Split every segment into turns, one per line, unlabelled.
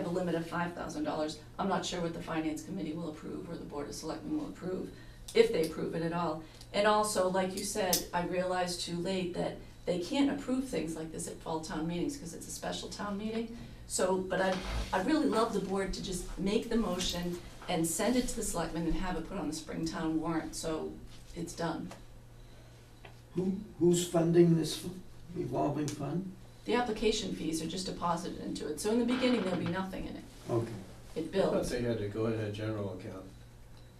of five thousand dollars. I'm not sure what the finance committee will approve or the board of selectmen will approve, if they approve it at all. And also, like you said, I realized too late that they can't approve things like this at fall town meetings because it's a special town meeting. So, but I, I really love the board to just make the motion and send it to the selectmen and have it put on the Springtown warrant, so it's done.
Who, who's funding this f- revolving fund?
The application fees are just deposited into it, so in the beginning, there'll be nothing in it.
Okay,
It
I thought
builds.
they had to go in a general account,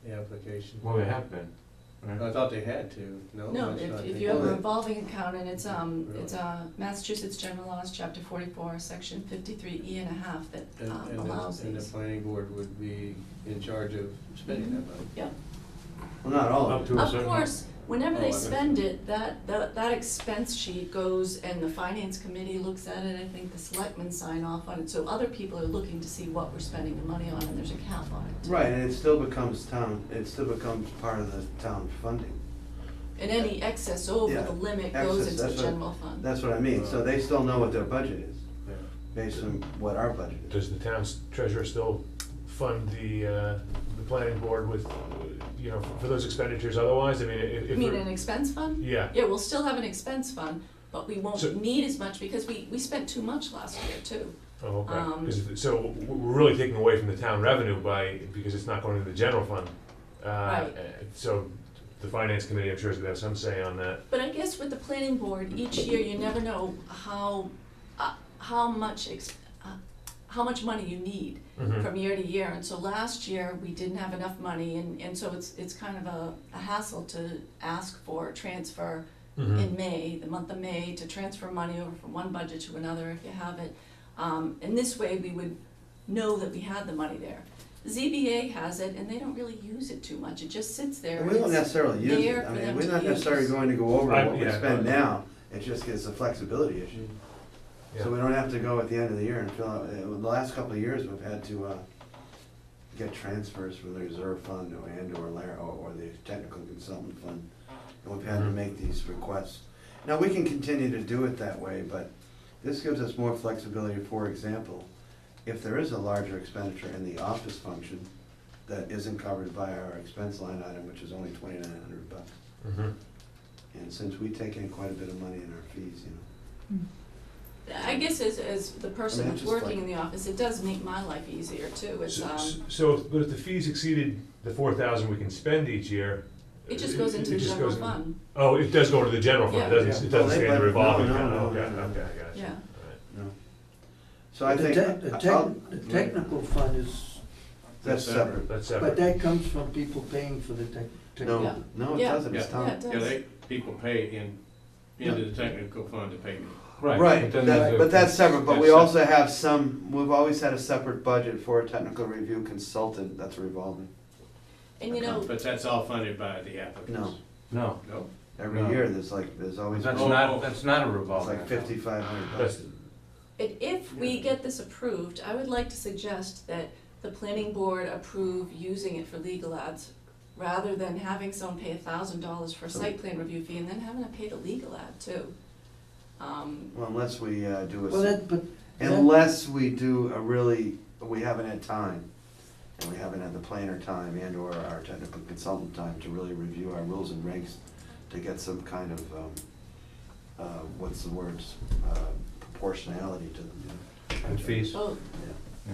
the application.
Well, they have been,
I
right?
thought they had to, no?
No,
that's
if,
not
if
the-
you have a
Well, it-
revolving account and it's, um,
Really?
it's, uh, Massachusetts General Laws, Chapter forty-four, Section fifty-three E and a half that,
And,
um,
and
allows
the, and the
these.
planning board would be in charge of spending that money.
well, not all
Up
of it.
to a
Of
certain.
course, whenever
Oh, I
they
got
spend it, that, that, that expense sheet goes and the finance committee looks at it, I think the selectmen sign off on it, so other people are looking to see what we're spending the money on and there's a cap on
Oh.
it.
Right, and it still becomes town, it still becomes part of the town funding.
And any excess over
Yeah,
the limit goes into
excess,
the
that's what-
general fund.
That's what I mean, so they still know what their budget is,
Yeah.
based on what our budget is.
Does the town's treasurer still fund the, uh, the planning board with, uh, you know, for those expenditures otherwise? I mean, if,
You
if,
mean
we're-
an expense fund?
yeah,
Yeah, we'll still have an expense fund, but we
So-
won't need as much because we, we spent too much last year too.
oh, okay.
Um,
'Cause th- so w- we're really taking away from the town revenue by, because it's not going to the general fund. Uh,
Right.
uh, So the finance committee, I'm sure, is gonna have some say on that.
But I guess with the planning board, each year you never know how, uh, how much, ex- uh, how much money you need
Mhm.
from year to year. And so last year, we didn't have enough money and, and so it's, it's kind of a, a hassle to ask for a transfer
Mhm.
in May, the month of May, to transfer money over from one budget to another if you have it. Um, and this way, we would know that we had the money there. ZBA has it, and they don't really use it too much, it just sits there.
And we don't
It's-
necessarily use
there
it,
for
I mean,
them
we're
to
not necessarily
use.
going to go over
I-
what we
yeah,
spend
but- Mm,
now, it just gets a flexibility issue.
Yeah.
So we don't have to go at the end of the year and fill out, uh, the last couple of years, we've had to, uh, get transfers from the reserve fund or and or layer, or, or the technical consultant fund. And we've had to
Mhm.
make these requests. Now, we can continue to do it that way, but this gives us more flexibility, for example, if there is a larger expenditure in the office function that isn't covered by our expense line item, which is only twenty-nine hundred bucks.
Mhm.
And since we take in quite a bit of money in our fees, you know,
I guess as, as the
I
person
mean,
that's
just like-
working in the office, it does make my life easier too, it's,
So-
um,
So, so if- but if the fees exceeded the four thousand we can spend each year.
it just goes into
it
the
just
general
goes in-
fund,
Oh, it does go to the general fund, it
Yeah.
doesn't, it
Yeah. Well,
doesn't
they
stay in the
let-
revolving
no,
account,
no,
okay,
no, no.
okay, I gotcha.
yeah.
Alright.
no. So I
The
think.
tech- The
I'll-
tech, the technical fund is,
That's separate.
That's
but
separate.
that comes from people paying for the tech, technical.
Yeah.
No, no, it
Yeah.
doesn't, it's
Yeah.
Yeah,
town.
it
Yeah,
does.
they, people pay in, into the technical fund to pay me.
Right, that-
then there's a-
but that's separate, but we
that's
also have some, we've always had a separate budget for a technical review consultant, that's revolving.
And you know,
But that's all funded by the applicants.
No,
No. No?
Every
No.
year, there's like, there's always,
that's
Oh.
it's
not, that's not a revolving.
like fifty-five hundred
That's,
bucks.
And if we get this approved, I would like to suggest that the planning board approve using it for legal ads rather than having someone pay a thousand dollars for a
So-
site plan review fee and then having to pay the legal ad too. Um,
Well, unless we uh, do
Well,
a,
that, but. that-
unless we do a really, we haven't had time, and we haven't had the planner time and or our technical consultant time to really review our rules and regs to get some kind of, um, uh, what's the words, uh, proportionality to them, you know?
And fees.
oh,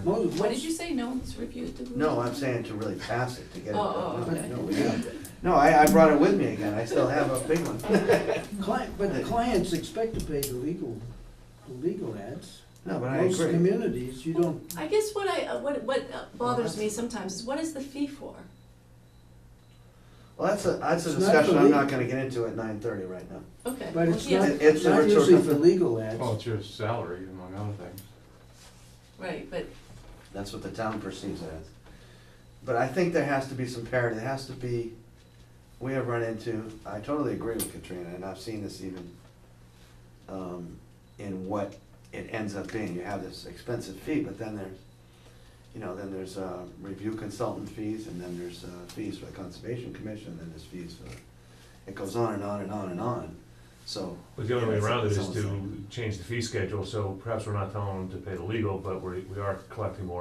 mo-
what did you say, no one's reviewed the?
No, I'm saying to really pass it, to get it.
Oh, oh, okay.
No, we have- No, I, I brought it with me again, I still have a big one.
Client, but the clients expect to pay the legal, the legal ads.
No, but I
Most
agree.
communities, you don't,
I guess what I, uh, what, what
Uh-huh.
uh, bothers me sometimes is what is the fee for?
Well, that's a, that's a
It's not
discussion I'm not
illegal.
gonna get into at nine thirty right now.
Okay.
but
well,
it's
yeah,
not,
It- it's a
not usually
rhetorical-
for legal ads.
Well, it's your salary among other things.
Right, but
That's what the town perceives it as. But I think there has to be some parity, there has to be, we have run into, I totally agree with Katrina, and I've seen this even um, in what it ends up being, you have this expensive fee, but then there's, you know, then there's uh, review consultant fees, and then there's uh, fees for the conservation commission, and then there's fees for, it goes on and on and on and on, so.
but the only way
Yeah,
around it
it's
is
almost
to change the fee schedule, so perhaps we're not telling them to pay the legal, but we, we are collecting more